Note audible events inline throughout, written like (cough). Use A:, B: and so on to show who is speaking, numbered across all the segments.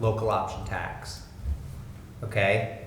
A: local option tax. Okay?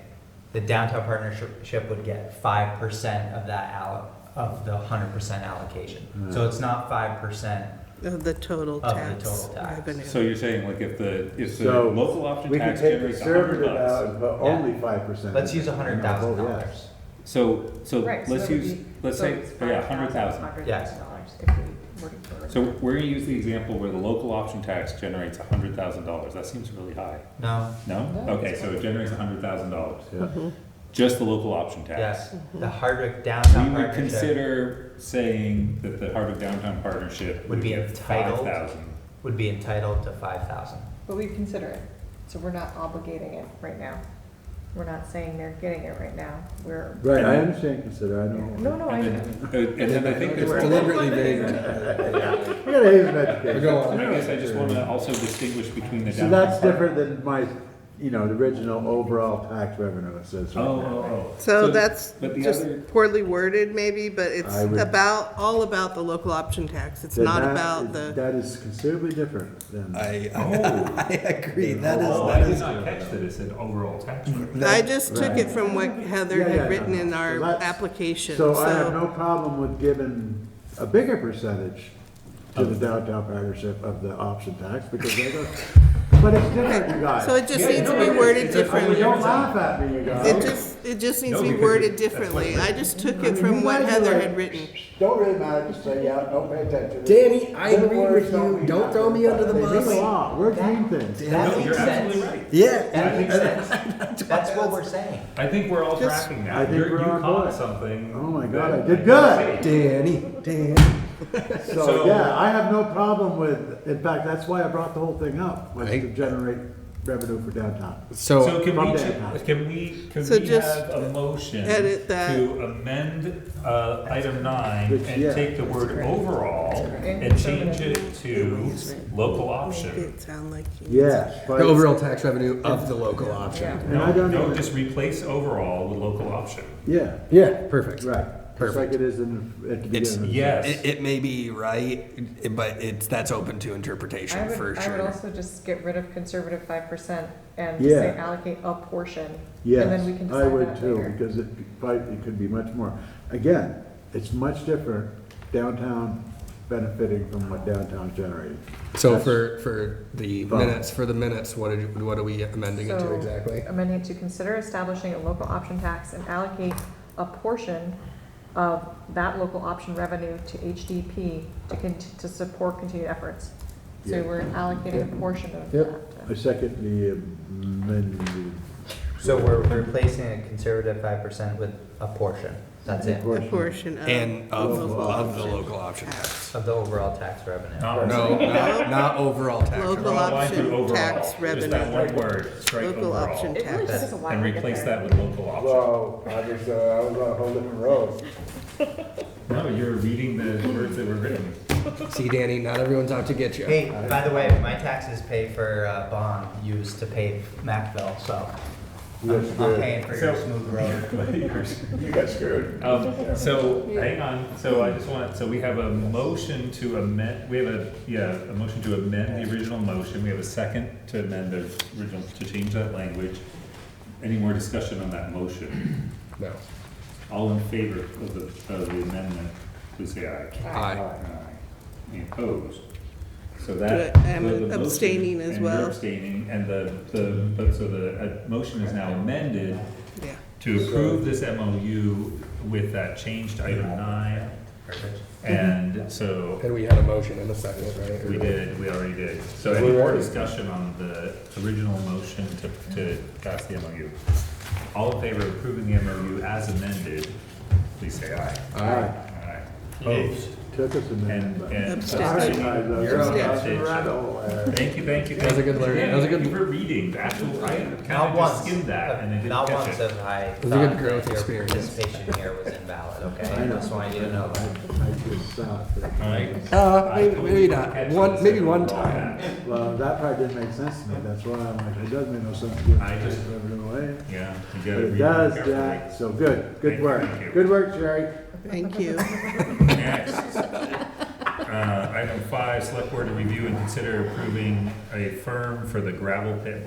A: The downtown partnership would get five percent of that allo, of the hundred percent allocation. So it's not five percent,
B: Of the total
A: Of the
B: tax.
A: total tax.
B: revenue.
C: So you're saying like if the, if the
D: So,
C: local option
D: We could
C: tax
D: take
C: generates a hundred
D: conservative
C: bucks.
D: out, but
A: Yeah.
D: only five percent.
A: let's use hundred thousand dollars.
C: So, so
E: Right, so
C: let's
E: that would
C: use,
E: be-
C: let's
E: so
C: say,
E: it's
C: oh yeah, hundred thousand.
A: Yes.
E: dollars if we were to go with
C: So
E: that.
C: we're gonna use the example where the local option tax generates a hundred thousand dollars. That seems really high.
A: No,
C: No?
E: No,
C: Okay,
E: it's
C: so it generates a hundred thousand dollars.
D: Yeah,
B: Mm-hmm.
C: Just the local option tax.
A: yes, the Hardwick
C: We
A: downtown
C: would
A: partnership
C: consider saying that the Hardwick Downtown Partnership
A: Would
C: would
A: be
C: get five
A: entitled.
C: thousand.
A: would be entitled to five thousand.
E: But we consider it, so we're not obligating it right now. We're not saying they're getting it right now, we're.
D: right, I understand consider, I
E: No,
D: know.
E: no, I
C: And
E: know.
C: then, uh, and then I think there's.
F: It's
C: one-
F: deliberately vague.
D: We gotta have an education.
F: We're going-
C: I guess I just wanna also distinguish between the
D: So
C: downtown.
D: that's
C: part-
D: different than my, you know, the original overall tax revenue it says. right
C: Oh,
D: now.
C: oh, oh.
B: So
C: the-
B: that's
C: But the
B: just
C: other,
B: poorly worded maybe, but it's
D: I would-
B: about, all about the local option tax. It's
D: Then
B: not
D: that
B: about
D: is-
B: the,
D: That is considerably different than.
F: I,
C: Oh.
F: (laughs) I agree, that is,
C: oh, I
F: that
C: did
F: is.
C: not catch that it said overall tax
D: Mm-hmm.
C: rate.
B: I
F: that-
B: just took it from what Heather
D: Yeah, yeah,
B: had written
D: no,
B: in
D: no. So
B: our
D: that's-
B: application,
D: So I have
B: so.
D: no problem with giving a bigger percentage to the
C: Oh.
D: downtown partnership of the option tax, because they don't, but it's different, you guys.
B: So it just
C: Yeah,
B: needs to
C: no,
B: be
C: it's-
B: worded
C: it's a-
D: I mean,
B: differently.
D: don't laugh at me, you guys.
B: It just, it just needs
C: No,
B: to be
C: because it-
B: worded
C: that's what
B: differently.
C: it-
B: I
D: I
B: just took
D: mean,
B: it from
D: you
B: what
D: guys are
B: Heather
D: like,
B: had written.
D: Don't really matter, just say, yeah, don't pay attention.
F: Danny, I
D: Their
F: agree with
D: words don't
F: you.
D: mean
F: Don't
D: nothing,
F: throw me
D: but
F: under the
D: they mean
F: bus.
D: a lot. We're green things.
C: No,
A: That
C: you're
A: makes
C: absolutely
A: sense.
C: right.
F: Yeah,
A: That makes sense. (laughs) That's what we're saying.
C: I think we're all
B: Just-
C: tracking now.
D: I think
C: You're-
D: we're
C: you
D: on
C: caught
D: board.
C: something.
D: Oh my
C: that
D: God, I
C: didn't
D: did good.
C: see.
F: Danny, Danny.
D: So,
C: So-
D: yeah, I have no problem with, in fact, that's why I brought the whole thing up, was to
F: Right.
D: generate revenue for downtown.
C: So
F: So,
C: can
D: From
C: we,
D: there.
C: ch- can we, can
B: So
C: we
B: just
C: have a motion
B: edit that.
C: to amend, uh, item nine
D: Which, yeah.
C: and take the word overall
E: great.
C: and change it to local option?
B: It sound like. you-
D: Yes.
F: the overall tax revenue of the local option.
D: And I
C: No,
D: don't
C: no,
D: even-
C: just replace overall with local option.
D: Yeah,
F: Yeah, perfect.
D: right. Just like
F: Perfect.
D: it is in, at the
F: It's-
D: beginning.
C: Yes.
F: It, it may be right, it- but it's, that's open to
E: I
F: interpretation for
E: would, I would
F: sure.
E: also just get rid of conservative five percent and just say
D: Yeah.
E: allocate a portion. And then we can
D: Yes, I
E: decide
D: would
E: that
D: too,
E: later.
D: because it, but it could be much more. Again, it's much different downtown benefiting from what downtown generated.
F: So for, for the
D: Fine.
F: minutes, for the minutes, what are, you- what are we amending it to
E: So, um,
F: exactly?
E: Amending it to consider establishing a local option tax and allocate a portion of that local option revenue to HDP to con, to support continued efforts. So
D: Yeah.
E: we're allocating a portion of
D: Yep.
E: that.
D: I second the amendment.
A: So we're replacing a conservative five percent with a portion. That's it.
B: A portion of.
F: And of,
D: Local
F: of the
B: option.
F: local option tax.
A: Of the overall tax revenue.
C: Not
F: No, not, not overall tax.
B: Local
F: revenue.
C: overall, I do
B: option
C: overall.
B: tax
C: Just
B: revenue.
C: that one word, strike
B: Local option
C: overall.
E: It really just is a wide
C: And
E: way to
C: replace
E: there.
C: that with local option.
D: Well, I was, uh, I was on a whole different road.
C: No, you're reading the words that were written.
F: See, Danny, not everyone's out to get you.
A: Hey, by the way, my taxes pay for uh, bond used to pay Macville, so
D: Yes,
A: I'm- I'm
D: good.
A: paying for your
C: So-
A: smooth road.
C: (laughs)
D: You got screwed.
C: Um, so, hang on, so I just want, so we have a motion to amend, we have a, yeah, a motion to amend the original motion, we have a second to amend the original, to change that language. Any more discussion on that motion?
F: No.
C: All in favor of the, of the amendment, please say aye.
F: Aye.
C: Aye. Any opposed? So
B: Do
C: that.
B: I- I'm
C: the- the motion-
B: abstaining as
C: and you're
B: well.
C: abstaining, and the, the, but so the, uh, motion is now amended
B: Yeah.
C: to approve this MOU with that change to item nine. And so
F: And we had a motion and a second, right?
C: we did, we already did. So any more discussion on the original motion to, to pass the MOU? All in favor of approving the MOU as amended, please say aye.
D: Aye.
C: Aye. Opposed?
D: Took us a
C: And,
D: minute.
C: and
B: Abstain.
C: abstaining. You're on
D: Abstain.
C: abstention. Thank you, thank you.
F: That was a
C: thank
F: good
C: you.
F: learning.
C: Yeah,
F: That was a
C: thank
F: good-
C: you for reading the actual, I kinda
A: Not
C: just
A: once,
C: skimmed that and I didn't
A: not
C: catch
A: once
C: it.
A: have I
F: a good
A: thought
F: growth
A: that your
F: experience.
A: participation here was invalid, okay? I just want you to know that.
D: I just stopped. it.
C: All right.
F: Uh,
C: I
F: maybe,
C: totally
F: maybe not.
C: catch
F: One,
C: this
F: maybe
C: every
F: one
C: once in a while.
F: time.
D: Well, that part didn't make sense to me, that's why I'm like, it does make no sense to give
C: I just-
D: everything away.
C: Yeah, you gotta read
D: It
C: it
D: does,
C: carefully.
D: Jack, so good, good
C: Thank you.
D: work, good work, Jerry.
B: Thank you.
C: Next, (laughs) uh, item five, select board to review and consider approving a firm for the gravel pit